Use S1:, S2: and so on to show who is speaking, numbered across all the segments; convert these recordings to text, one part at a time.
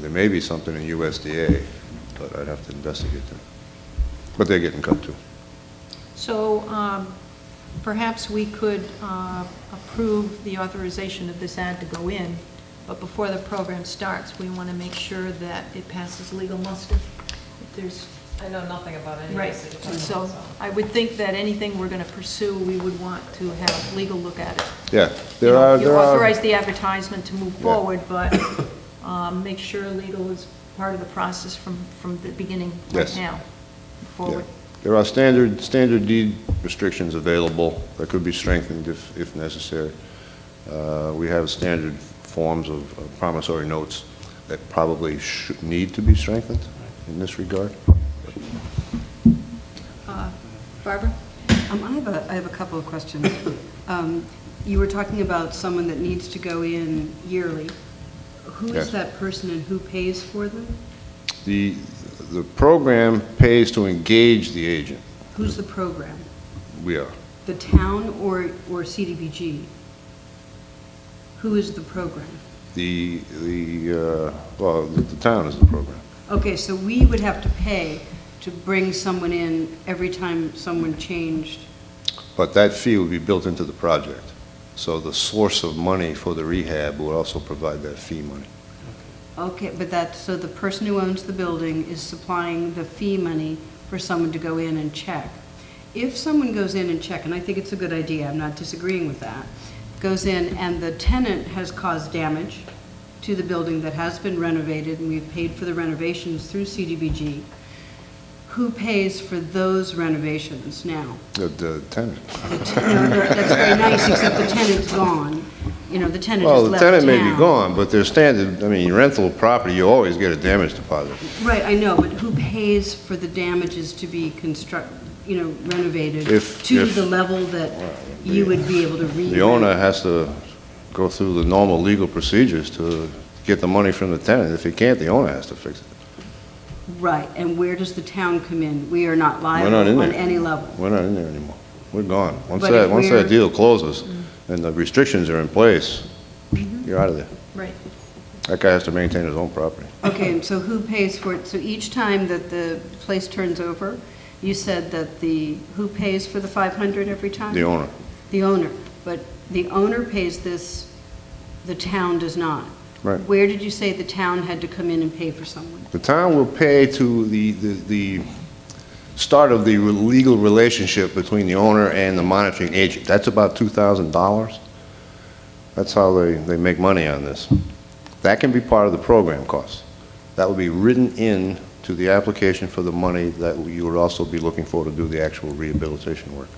S1: there may be something in USDA, but I'd have to investigate that. But they're getting cut too.
S2: So um, perhaps we could uh, approve the authorization of this ad to go in, but before the program starts, we want to make sure that it passes legal muster. If There's,
S3: I know nothing about any
S2: right,
S3: of this. at the
S2: so
S3: time,
S2: I would think that anything we're going to pursue, we would want to have legal look at it.
S1: Yeah,
S2: You
S1: there
S2: know,
S1: are, there
S2: You
S1: are,
S2: authorize the advertisement to move
S1: Yeah.
S2: forward, but um, make sure legal is part of the process from, from the beginning right
S1: Yes.
S2: now,
S1: yeah.
S2: forward.
S1: there are standard, standard deed restrictions available that could be strengthened if, if necessary. Uh, We have standard forms of of promissory notes that probably should, need to be strengthened in this regard.
S2: Uh, Barbara?
S4: Um, I have a, I have a couple of questions. Um, You were talking about someone that needs to go in yearly. Who
S1: Yes.
S4: is that person and who pays for them?
S1: The, the program pays to engage the agent.
S4: Who's the program?
S1: We are.
S4: The town or, or CDBG? Who is the program?
S1: The, the, uh, well, the the town is the program.
S4: Okay, so we would have to pay to bring someone in every time someone changed.
S1: But that fee would be built into the project. So the source of money for the rehab would also provide that fee money.
S4: Okay, but that, so the person who owns the building is supplying the fee money for someone to go in and check. If someone goes in and check, and I think it's a good idea, I'm not disagreeing with that, goes in and the tenant has caused damage to the building that has been renovated, and we've paid for the renovations through CDBG, who pays for those renovations now?
S1: The- The tenant.
S4: The t- no, no, That's very nice, except the tenant's gone. You know, the tenant has
S1: Well,
S4: left
S1: the tenant may be
S4: town.
S1: gone, but there's standard, I mean, rental property, you always get a damage deposit.
S4: Right, I know, but who pays for the damages to be construct, you know, renovated?
S1: If-
S4: To
S1: if-
S4: the level that you would be able to re-
S1: The owner has to go through the normal legal procedures to get the money from the tenant. If he can't, the owner has to fix it.
S4: Right, and where does the town come in? We are not
S1: We're not in
S4: liable
S1: there.
S4: on any level.
S1: We're not in there anymore. We're gone. Once
S4: But
S1: that,
S4: if
S1: once that
S4: we're- Mm-hmm.
S1: deal closes and the restrictions are in place, you're out of there.
S2: Right.
S1: That guy has to maintain his own property.
S4: Okay, and so who pays for it? So each time that the place turns over, you said that the, who pays for the 500 every time?
S1: The owner,
S4: The owner, but the owner pays this, the town does not.
S1: Right.
S4: Where did you say the town had to come in and pay for someone?
S1: The town will pay to the, the, the start of the legal relationship between the owner and the monitoring agent. That's about $2,000. That's how they, they make money on this. That can be part of the program cost. That will be written in to the application for the money that you would also be looking for to do the actual rehabilitation work.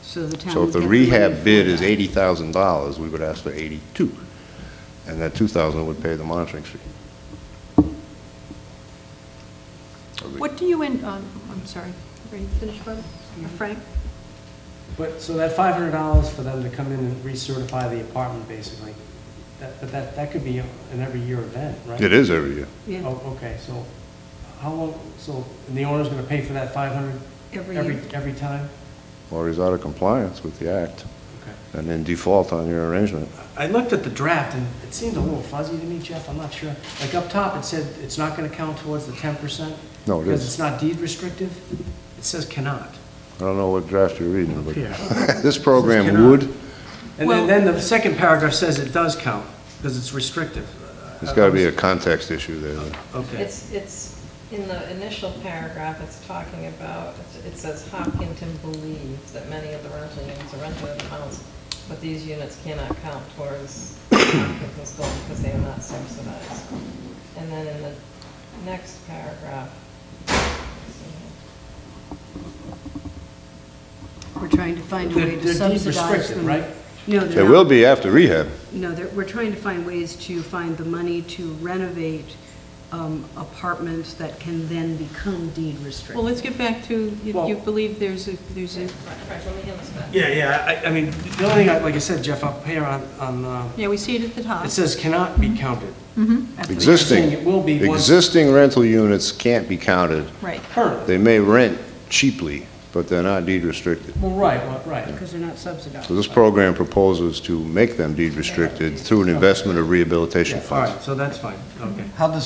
S4: So the town
S1: So if
S4: would
S1: the
S4: get money
S1: rehab
S4: for
S1: bid is
S4: that.
S1: $80,000, we would ask for 82, and that 2,000 would pay the monitoring fee.
S2: What do you, in- um, I'm sorry, are you finished, Barbara?
S3: Mm-hmm.
S2: Or Frank?
S5: But, so that five hundred dollars for them to come in and recertify the apartment, basically, that, but that, that could be an every year event, right?
S1: It is every year.
S4: Yeah.
S5: Oh, okay, so how long, so, and the owner's gonna pay for that five hundred?
S4: Every year.
S5: Every, every time?
S1: or he's out of compliance with the act
S5: Okay.
S1: and then default on your arrangement.
S5: I looked at the draft and it seemed a little fuzzy to me, Jeff, I'm not sure. Like up top, it said it's not gonna count towards the ten percent?
S1: No, it
S5: Because
S1: is.
S5: it's not deed restrictive? It says cannot.
S1: I don't know what draft you're reading, but
S5: Yeah.
S1: this program
S5: Cannot.
S1: would,
S5: And
S2: Well-
S5: then, then the second paragraph says it does count, because it's restrictive.
S1: there's got to
S5: uh,
S1: be a context issue there.
S3: so.
S5: Okay.
S3: It's, it's, in the initial paragraph, it's talking about, it says Hopkinton believes that many of the rental units are rented at amounts, but these units cannot count towards Hopkinton's goal because they are not subsidized. And then in the next paragraph, let's see here.
S4: We're trying to find a
S5: They're-
S4: way
S5: they're
S4: to
S5: deed
S4: subsidize
S5: restricted,
S4: them.
S5: right?
S4: No, they're not.
S1: There will be after rehab.
S4: No, they're- we're trying to find ways to find the money to renovate um, apartments that can then become deed restricted.
S2: Well, let's get back to, you- you
S5: Well-
S2: believe there's a, there's a,
S3: Right, right, let me hand this back.
S5: Yeah, yeah, I, I mean, the only thing, I- like I said, Jeff, up here on, on, uh,
S2: yeah, we see it at the top.
S5: it says cannot be counted. Saying it
S1: Existing,
S5: will be once-
S1: existing rental units can't be counted.
S2: Right.
S5: Currently.
S1: They may rent cheaply, but they're not deed restricted.
S5: Well, right, well, right.
S4: Because they're not subsidized.
S1: So this program proposes to make them deed restricted through an investment of rehabilitation
S5: Yeah, All
S1: funds.
S5: right, so that's fine, okay.
S6: How does